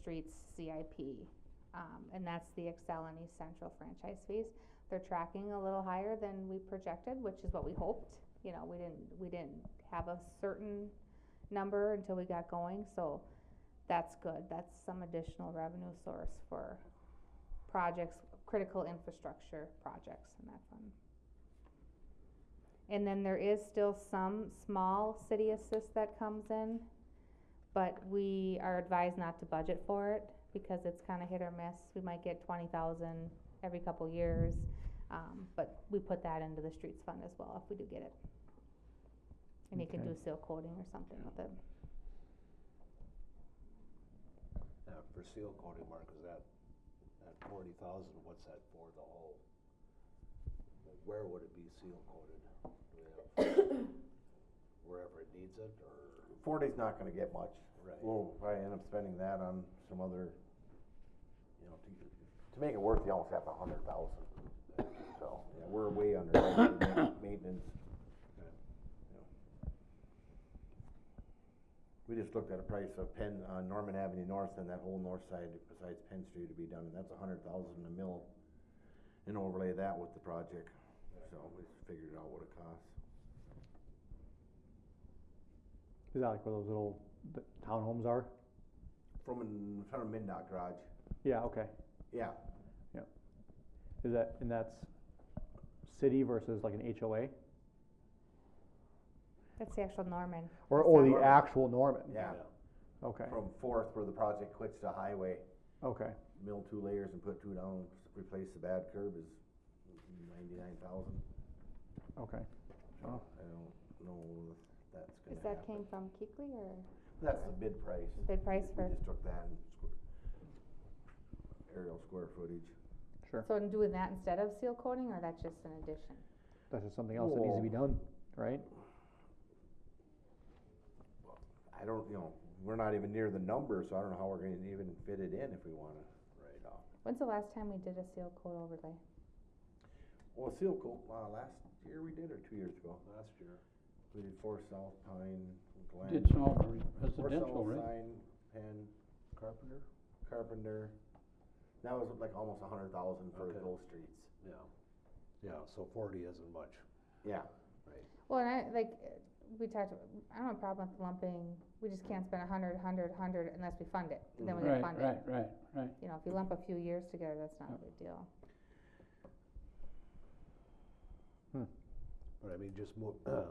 Street's CIP. Um, and that's the Excel and East Central franchise fees. They're tracking a little higher than we projected, which is what we hoped. You know, we didn't, we didn't have a certain number until we got going, so that's good. That's some additional revenue source for projects, critical infrastructure projects in that fund. And then there is still some small city assist that comes in, but we are advised not to budget for it because it's kinda hit or miss. We might get twenty thousand every couple years, um, but we put that into the streets fund as well if we do get it. And you can Okay. do seal coating or something with it. Now, uh, for seal coating, Mark, is that, that forty thousand, what's that for the whole? Like, Where would it be seal coated? Do we have, wherever it needs it, or, Forty's not gonna get much. right? We'll probably end up spending that on some other, you know, to, to make it worth, you almost have a hundred thousand. So, yeah, we're way under budget with maintenance. Okay. Yeah. We just looked at a price of Penn, uh, Norman Avenue North and that whole north side besides Penn Street to be done, and that's a hundred thousand a mill. And overlay that with the project, so we figured out what it costs. Is that like where those little b- townhomes are? From, an- from a Mindot garage, Yeah, okay. yeah, Is that, and that's city versus like an HOA? That's the actual Norman. Or, That's or the Norman. actual Norman? yeah. Okay, From Fourth, where the project quits to Highway, okay. mill two layers and put two down, s- replace the bad curb is ninety-nine thousand. Okay. Oh. I don't know if that's gonna Is happen. that came from Keekly or That's the bid price. bid price We- for? We just took that and square, aerial square footage. Sure. So in doing that instead of seal coating, or that's just an addition? That's just something else that needs to be done, right? I don't, you know, we're not even near the number, so I don't know how we're gonna even fit it in if we wanna. Right. When's the last time we did a seal coat overlay? Well, seal coat, uh, last year we did or two years ago, Last year, we did four South Pine, Glen. Did some of the Four residential, South right? Pine, Penn, Carpenter? Carpenter. That was like almost a hundred thousand for Okay. those streets. Yeah, yeah, so forty isn't much. Yeah. Well, and I, like, uh, we talked, I don't have a problem with lumping, we just can't spend a hundred, a hundred, a hundred unless we fund it, then we gotta Right, fund it. right, right, right. You know, if you lump a few years together, that's not a big deal. But I mean, just mo-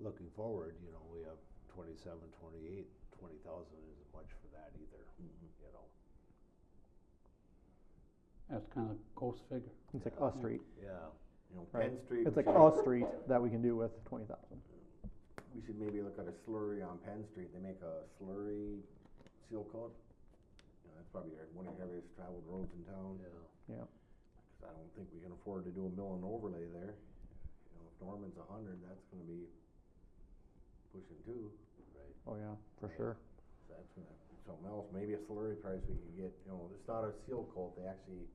looking forward, you know, we have twenty-seven, twenty-eight, twenty thousand isn't much for that either, you know? That's kind of ghost figure. It's like a street. Yeah, You know, Right. Penn Street. It's like we a should- street that we can do with twenty thousand. We should maybe look at a slurry on Penn Street. They make a slurry seal coat. You know, that's probably our- one of the heaviest traveled roads in town. yeah. 'cause I don't think we can afford to do a mill and overlay there. You know, if Norman's a hundred, that's gonna be pushing two. Oh, yeah, for sure. So that's gonna be something else, maybe a slurry price we could get, you know, it's not a seal coat, they actually,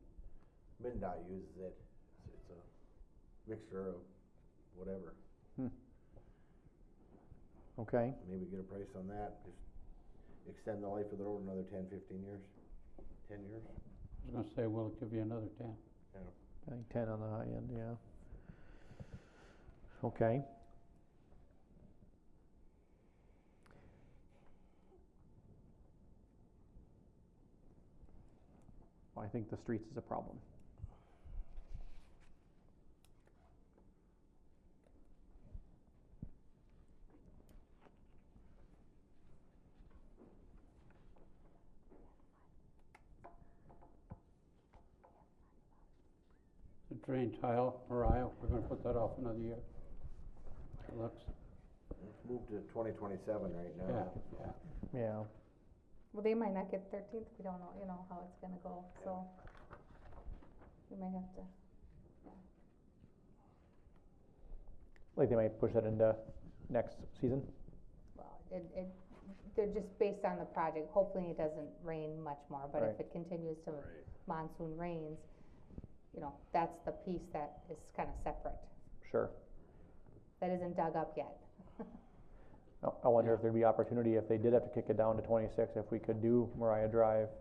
MinDOT uses it, so it's a mixture of whatever. Okay, Maybe get a price on that, just extend the life of the road another ten, fifteen years, ten years. I was gonna say, well, it'll give you another ten. I think ten on the high end, yeah. Okay. I think the streets is a problem. The drain tile, Mariah, we're gonna put that off another year. It looks, Let's Move to twenty twenty-seven right yeah, now. yeah. Yeah, Well, they might not get thirteenth, we don't know, you know, how it's gonna go, so. We might have to, like they might push that into next season. well, it, it, they're just based on the project, hopefully it doesn't rain much more, but if Right. it continues to Right. monsoon rains, you know, that's the piece that is kinda separate, Sure. that isn't dug up yet. I- I wonder if there'd be opportunity, if they did have to kick it down to twenty-six, if we could do Mariah Drive